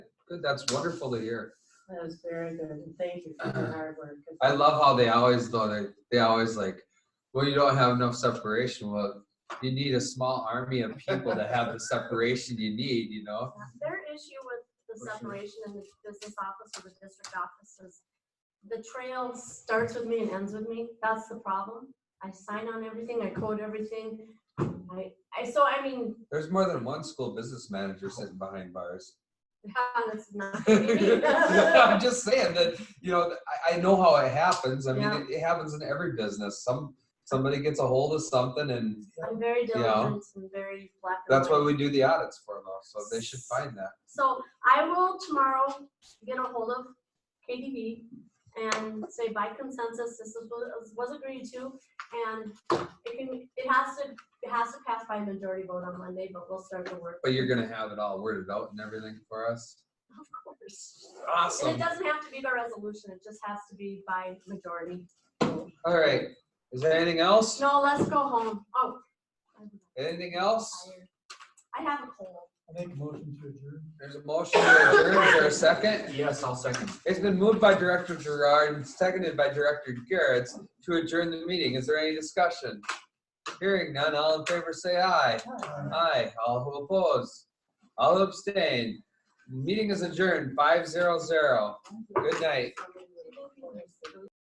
Good, that's wonderful to hear. That was very good, and thank you for your hard work. 'cause- Uh-huh. I love how they always though they they always like, well, you don't have enough separation. Well, you need a small army of people to have the separation you need. You know. Their issue with the For sure. separation in the business office or the district office is the trail starts with me and ends with me. That's the problem. I sign on everything, I code everything. I, I, so I mean, There's more than one school business manager sitting behind bars. that's not. I'm just saying that you know I, I know how it happens. I mean, Yeah. it, it happens in every business. Some somebody gets a hold of something, and I'm very Yeah. diligent and very black. and that's why white. we do the audits for them. So they should find that. So I will tomorrow get a hold of KDB and say by consensus, this is what was agreed to. And it can, it has to, it has to pass by a majority vote on Monday, but we'll start the work. But you're gonna have it all worded out and everything for us. Of course. And it Awesome. doesn't have to be by resolution, it just has to be by majority. No, All right. Is there anything else? let's go home. Oh. I'm Anything else? tired. I have a cold. I make a motion to adjourn. There's a motion to adjourn. Is there a second? Yes, I'll second. It's been moved by Director Gerard and seconded by Director Garretts to adjourn the meeting. Is there any discussion? Hearing none, all in favor say aye. Aye. All who oppose? All who abstain? Meeting is adjourned, five zero zero. Good night.